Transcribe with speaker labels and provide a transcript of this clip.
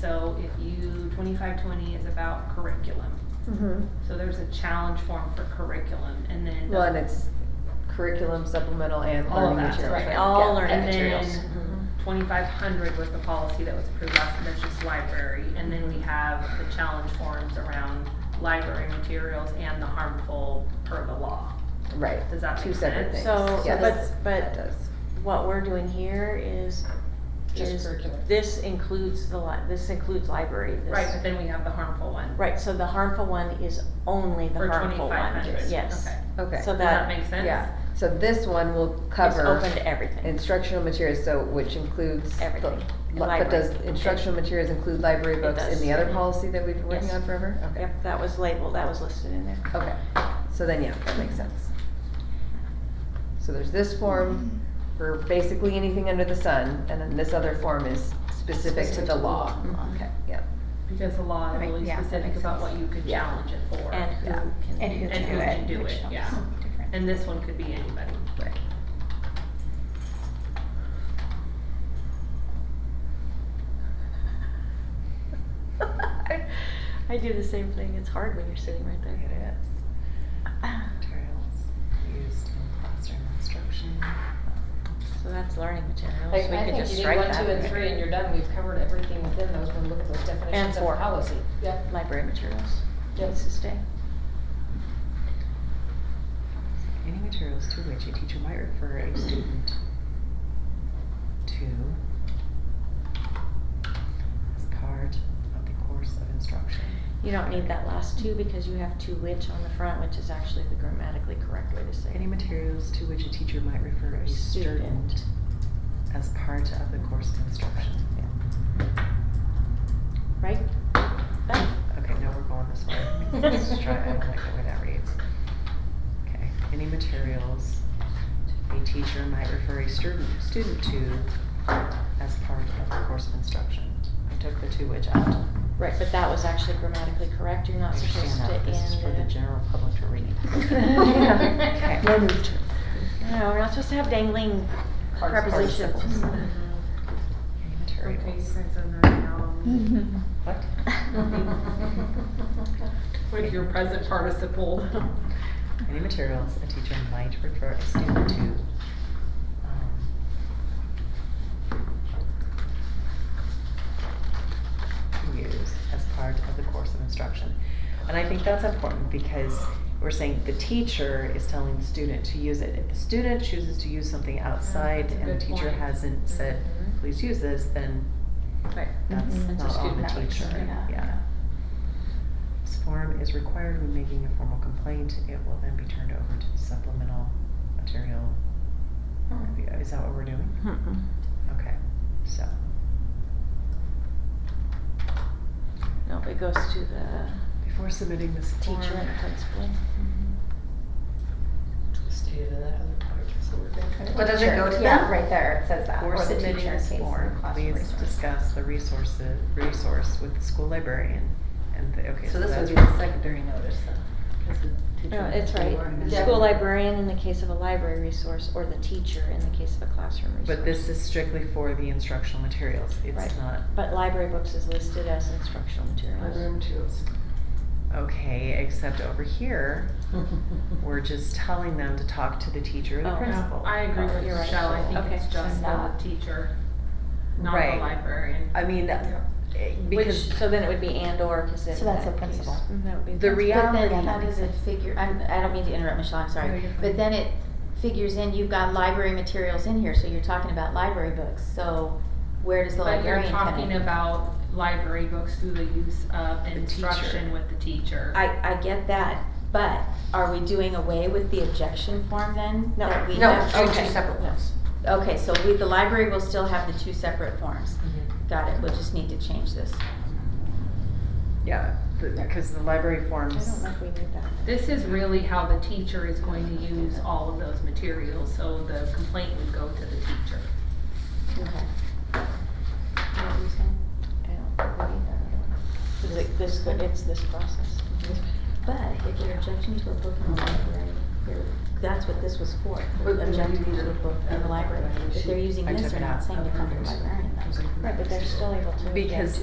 Speaker 1: so if you, twenty-five twenty is about curriculum.
Speaker 2: Mm-hmm.
Speaker 1: So there's a challenge form for curriculum and then.
Speaker 2: Well, and it's curriculum, supplemental, and
Speaker 1: All Mm-hmm. of
Speaker 2: learning
Speaker 1: that,
Speaker 2: materials.
Speaker 1: right.
Speaker 2: right?
Speaker 3: All
Speaker 2: Yeah.
Speaker 3: learning
Speaker 1: And then-
Speaker 3: materials. Mhm.
Speaker 1: Twenty-five hundred was the policy that was approved last, and that's just library, and then we have the challenge forms around library materials and the harmful per the law.
Speaker 2: Right.
Speaker 1: Does that
Speaker 2: Two
Speaker 1: make
Speaker 2: separate
Speaker 1: sense?
Speaker 2: things.
Speaker 3: So,
Speaker 2: Yes, That
Speaker 3: but, but
Speaker 2: does.
Speaker 3: what we're doing here is,
Speaker 4: Just
Speaker 3: is,
Speaker 4: curriculum.
Speaker 3: this includes the li- this includes library, this.
Speaker 1: Right, but then we have the harmful one.
Speaker 3: Right, so the harmful one is only the
Speaker 1: For
Speaker 3: harmful
Speaker 1: twenty-five
Speaker 3: one,
Speaker 1: hundred.
Speaker 3: yes.
Speaker 1: Okay.
Speaker 2: Okay.
Speaker 3: So
Speaker 1: Does that
Speaker 3: that
Speaker 1: make sense?
Speaker 2: Yeah, so this one will
Speaker 3: is
Speaker 2: cover.
Speaker 3: open to everything,
Speaker 2: Instructional materials, so, which includes. the-
Speaker 3: Everything.
Speaker 2: li-
Speaker 3: And
Speaker 2: But does
Speaker 3: library.
Speaker 2: instructional materials include library
Speaker 3: It
Speaker 2: books in
Speaker 3: does.
Speaker 2: the other
Speaker 3: Mhm.
Speaker 2: policy that we've been working
Speaker 3: Yes.
Speaker 2: on forever? Okay.
Speaker 3: yep, that was labeled, that was listed in there.
Speaker 2: Okay, so then, yeah, that makes sense. So there's this form for basically anything under the sun, and then this other form is specific to the law. Okay, yeah.
Speaker 1: Because the law is
Speaker 5: Right,
Speaker 1: really
Speaker 5: yeah, that
Speaker 1: specific
Speaker 5: makes
Speaker 1: about
Speaker 5: sense.
Speaker 1: what you could
Speaker 2: Yeah.
Speaker 1: challenge it for.
Speaker 3: And who
Speaker 2: Yeah.
Speaker 3: can.
Speaker 5: And who
Speaker 1: And
Speaker 5: can
Speaker 1: who
Speaker 5: do it.
Speaker 1: can do
Speaker 5: which
Speaker 1: it,
Speaker 5: helps
Speaker 1: yeah.
Speaker 5: different.
Speaker 1: And this one could be anybody.
Speaker 2: Right.
Speaker 3: I do the same thing, it's hard when you're sitting right
Speaker 4: It
Speaker 3: there. Ah.
Speaker 4: is. Materials used in classroom instruction.
Speaker 3: So that's learning materials, we
Speaker 6: Like, I
Speaker 3: could
Speaker 6: think
Speaker 3: just
Speaker 6: you do
Speaker 3: strike
Speaker 6: one,
Speaker 3: that.
Speaker 6: two, and three, and you're done, we've covered everything within those, when we look at those definitions of
Speaker 3: four.
Speaker 6: policy. Yep.
Speaker 3: Library materials,
Speaker 6: Yep.
Speaker 3: needs to stay.
Speaker 4: Any materials to which a teacher might refer a student to as part of the course of instruction.
Speaker 3: You don't need that last two because you have two which on the front, which is actually the grammatically correct way to say
Speaker 4: Any
Speaker 3: it.
Speaker 4: materials to which a teacher might refer a
Speaker 3: Student.
Speaker 4: student as part of the course of instruction.
Speaker 3: Right? Done.
Speaker 4: Okay, now we're going this way. Let's try, I don't like the way that reads. Okay, any materials a teacher might refer a student, student to as part of the course of instruction. I took the two which out.
Speaker 3: Right, but that was actually grammatically correct. You're not
Speaker 4: Understand
Speaker 3: supposed
Speaker 4: that,
Speaker 3: to
Speaker 4: but This is for the
Speaker 3: end it.
Speaker 4: general public to read.
Speaker 3: Okay.
Speaker 4: Okay.
Speaker 3: No, we're not supposed to have dangling prepositions.
Speaker 4: Any materials. What?
Speaker 1: With your present participle.
Speaker 4: Any materials a teacher might refer a student to. um, Use as part of the course of instruction. And I think that's important because we're saying the teacher is telling the student to use it. If the student chooses to use something outside
Speaker 1: that's a
Speaker 4: and the
Speaker 1: good
Speaker 4: teacher
Speaker 1: point.
Speaker 4: hasn't said,
Speaker 3: Mhm.
Speaker 4: please use this, then
Speaker 3: Right.
Speaker 4: that's
Speaker 5: Mhm.
Speaker 3: That's a
Speaker 4: not on the
Speaker 3: student action,
Speaker 4: teacher,
Speaker 3: yeah.
Speaker 4: yeah. This form is required when making a formal complaint, it will then be turned over to the supplemental material. review. Is that what we're doing?
Speaker 3: Mm-mm.
Speaker 4: Okay, so,
Speaker 3: No, it goes to the
Speaker 4: before submitting this form.
Speaker 3: teacher and the principal.
Speaker 4: Stated in that other part, so we're gonna kind
Speaker 5: Well, does it go to that right there? It says that.
Speaker 4: Before
Speaker 5: or the
Speaker 4: submitting
Speaker 5: teacher in
Speaker 4: this
Speaker 5: case of
Speaker 4: form,
Speaker 5: classroom
Speaker 4: please
Speaker 5: resource.
Speaker 4: discuss the resources, resource with the school librarian and the, okay, so
Speaker 5: So this
Speaker 4: that's.
Speaker 5: would be the secondary notice then. 'cause the teacher
Speaker 3: No,
Speaker 5: would
Speaker 3: it's
Speaker 5: be
Speaker 3: right.
Speaker 5: learning
Speaker 3: The
Speaker 5: that.
Speaker 3: School librarian in the case of a library resource or the teacher in the case of a classroom resource.
Speaker 4: But this is strictly for the instructional materials,
Speaker 3: Right.
Speaker 4: it's not
Speaker 3: But library books is listed as instructional materials.
Speaker 6: materials.
Speaker 4: Okay, except over here, we're just telling them to talk to the teacher or the
Speaker 3: Oh,
Speaker 4: principal.
Speaker 1: I agree with
Speaker 3: You're right.
Speaker 1: Michelle, I think
Speaker 3: Okay.
Speaker 1: it's
Speaker 5: So
Speaker 1: just the
Speaker 5: not-
Speaker 1: teacher, not the
Speaker 4: Right.
Speaker 1: librarian.
Speaker 4: I mean, eh,
Speaker 3: Which,
Speaker 4: because
Speaker 3: so then it would be and or, cause it.
Speaker 5: So that's
Speaker 3: that
Speaker 5: a
Speaker 3: case-
Speaker 5: principal. Mm-hmm.
Speaker 3: Mm, That would be. a
Speaker 4: The
Speaker 3: principal.
Speaker 4: rea-
Speaker 5: But
Speaker 4: reality-
Speaker 5: then how does it figure, I'm, I don't mean to interrupt, Michelle, I'm
Speaker 1: No,
Speaker 5: sorry.
Speaker 1: you're fine.
Speaker 5: But then it figures in, you've got library materials in here, so you're talking about library books. So where does the
Speaker 1: But you're
Speaker 5: librarian come
Speaker 1: talking
Speaker 5: in?
Speaker 1: about library books through the use of instruction
Speaker 4: teacher.
Speaker 1: with the teacher.
Speaker 5: I, I get that, but are we doing away with the objection form then?
Speaker 3: No.
Speaker 5: That we
Speaker 3: No,
Speaker 5: have-
Speaker 3: oh,
Speaker 5: okay.
Speaker 3: two separate ones.
Speaker 5: Okay, so we, the library will still have the two separate forms. Got it, we'll just need to change this.
Speaker 4: yeah, because the library
Speaker 3: I don't
Speaker 4: forms.
Speaker 3: know if we need that.
Speaker 1: This is really how the teacher is going to use all of those materials, so the complaint would go to the teacher.
Speaker 5: Okay. What were you saying?
Speaker 3: I don't think we need that. Is it this, it's this process?
Speaker 5: But if you're objecting to a book in the library, you're- that's what this was for, for
Speaker 6: But then you
Speaker 5: objecting
Speaker 6: need
Speaker 5: to a
Speaker 6: to-
Speaker 5: book in the library. If they're using
Speaker 4: I
Speaker 5: this,
Speaker 4: took
Speaker 5: they're
Speaker 4: it
Speaker 5: not
Speaker 4: out.
Speaker 5: saying to come to the librarian. though.
Speaker 3: Right, but they're still able to.
Speaker 4: Because